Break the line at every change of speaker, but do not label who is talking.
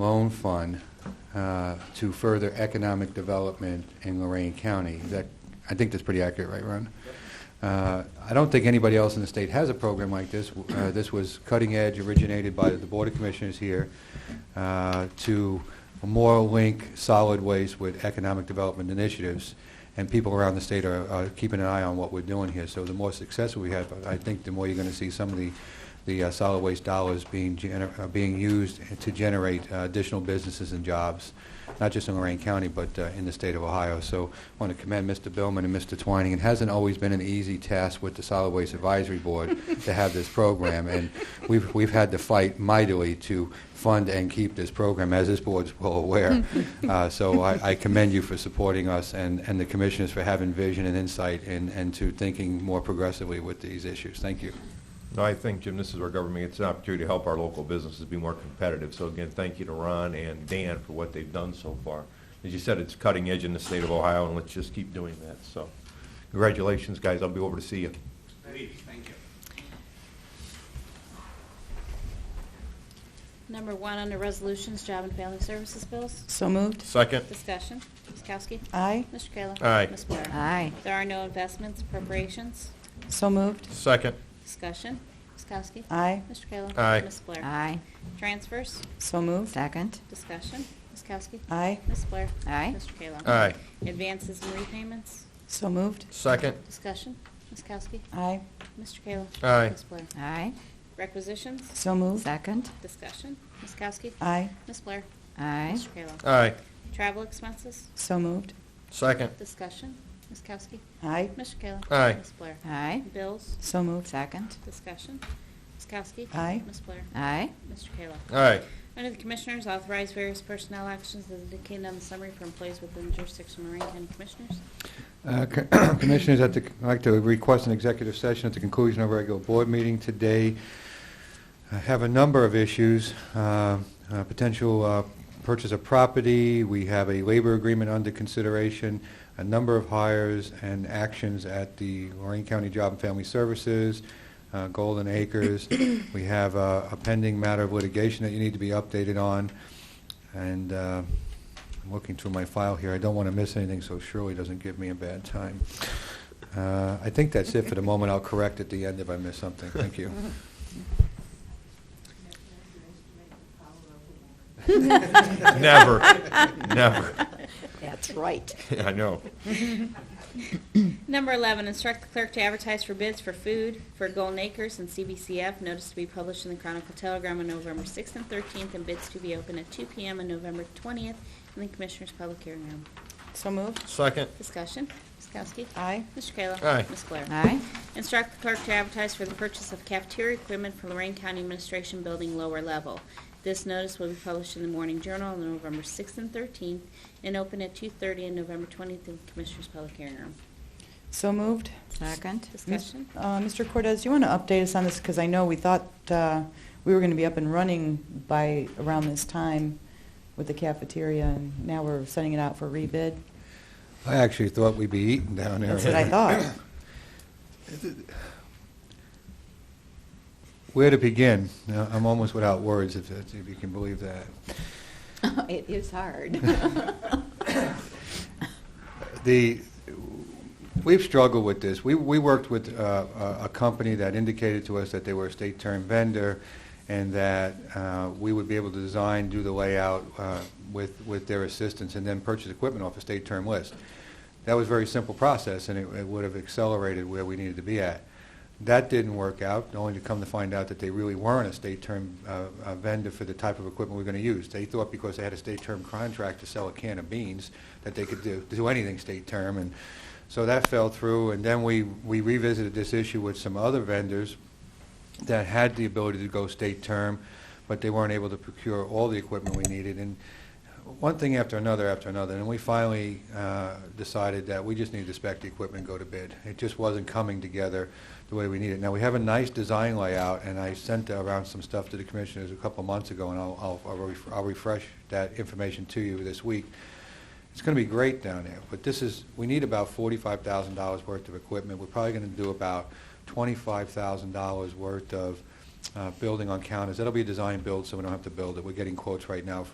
loan fund uh, to further economic development in Lorraine County. Is that, I think that's pretty accurate, right, Ron? Uh, I don't think anybody else in the state has a program like this. Uh, This was cutting edge, originated by the Board of Commissioners here, uh, to more link solid waste with economic development initiatives. And people around the state are are keeping an eye on what we're doing here. So the more success we have, I think the more you're going to see some of the the uh, solid waste dollars being, gener- uh, being used to generate uh, additional businesses and jobs, not just in Lorraine County, but uh, in the state of Ohio. So I want to commend Mr. Billman and Mr. Twining. It hasn't always been an easy task with the Solid Waste Advisory Board to have this program, and we've, we've had to fight mightily to fund and keep this program, as this board's well aware. Uh, So I I commend you for supporting us and, and the commissioners for having vision and insight and, and to thinking more progressively with these issues. Thank you.
No, I think, Jim, this is our government. It's an opportunity to help our local businesses be more competitive. So again, thank you to Ron and Dan for what they've done so far. As you said, it's cutting edge in the state of Ohio, and let's just keep doing that. So congratulations, guys. I'll be over to see you.
Number one, under Resolutions, Job and Family Services Bills.
So moved.
Second.
Discussion. Ms. Kowski?
Aye.
Mr. Kayla?
Aye.
Ms. Blair?
Aye.
There are no investments, appropriations.
So moved.
Second.
Discussion. Ms. Kowski?
Aye.
Mr. Kayla?
Aye.
Ms. Blair?
Aye.
Transfers.
So moved.
Second.
Discussion. Ms. Kowski?
Aye.
Ms. Blair?
Aye.
Mr. Kayla?
Aye.
Advances and repayments.
So moved.
Second.
Discussion. Ms. Kowski?
Aye.
Mr. Kayla?
Aye.
Ms. Blair?
Aye.
Requisitions.
So moved.
Second.
Discussion. Ms. Kowski?
Aye.
Ms. Blair?
Aye.
Mr. Kayla?
Aye.
Travel expenses.
So moved.
Second.
Discussion. Ms. Kowski?
Aye.
Mr. Kayla?
Aye.
Ms. Blair?
Aye.
Bills.
So moved.
Second.
Discussion. Ms. Kowski?
Aye.
Ms. Blair?
Aye.
Mr. Kayla?
Aye.
Under the Commissioners, authorize various personnel actions as indicated on the summary for employees within the jurisdiction of Lorraine County Commissioners.
Uh, co- Commissioners, I'd like to- I'd like to request an executive session at the conclusion of our regular board meeting today. I have a number of issues, uh, uh, potential uh, purchase of property, we have a labor agreement under consideration, a number of hires and actions at the Lorraine County Job and Family Services, uh, Golden Acres. We have uh, a pending matter of litigation that you need to be updated on, and uh, I'm looking through my file here. I don't want to miss anything, so Shirley doesn't give me a bad time. Uh, I think that's it for the moment. I'll correct at the end if I miss something. Thank you.
Never. Never.
That's right.
I know.
Number 11, instruct the clerk to advertise for bids for food for Golden Acres and CBCF. Notice to be published in the Chronicle Telegram on November 6th and 13th, and bids to be open at 2 p.m. on November 20th in the Commissioners' Public Hearing Room.
So moved.
Second.
Discussion. Ms. Kowski?
Aye.
Mr. Kayla?
Aye.
Ms. Blair?
Aye.
Instruct the clerk to advertise for the purchase of cafeteria equipment for Lorraine County Administration Building lower level. This notice will be published in the Morning Journal on November 6th and 13th, and open at 2:30 on November 20th in the Commissioners' Public Hearing Room.
So moved.
Second.
Discussion?
Uh, Mr. Cortez, do you want to update us on this? Because I know we thought uh, we were going to be up and running by around this time with the cafeteria, and now we're sending it out for rebid.
I actually thought we'd be eating down there.
That's what I thought.
Where to begin? Now, I'm almost without words, if that's- if you can believe that.
It is hard.
The, we've struggled with this. We, we worked with uh, a a company that indicated to us that they were a state term vendor and that uh, we would be able to design, do the layout uh, with, with their assistance, and then purchase equipment off a state term list. That was a very simple process, and it- it would have accelerated where we needed to be at. That didn't work out, only to come to find out that they really weren't a state term uh, uh, vendor for the type of equipment we're going to use. They thought because they had a state term contract to sell a can of beans, that they could do, do anything state term, and so that fell through. And then we, we revisited this issue with some other vendors that had the ability to go state term, but they weren't able to procure all the equipment we needed. And one thing after another after another, and we finally uh, decided that we just needed to spec the equipment and go to bid. It just wasn't coming together the way we need it. Now, we have a nice design layout, and I sent around some stuff to the commissioners a couple months ago, and I'll, I'll- I'll ref- I'll refresh that information to you this week. It's going to be great down there, but this is, we need about $45,000 worth of equipment. We're probably going to do about $25,000 worth of uh, building on counters. That'll be design build, so we don't have to build it. We're getting quotes right now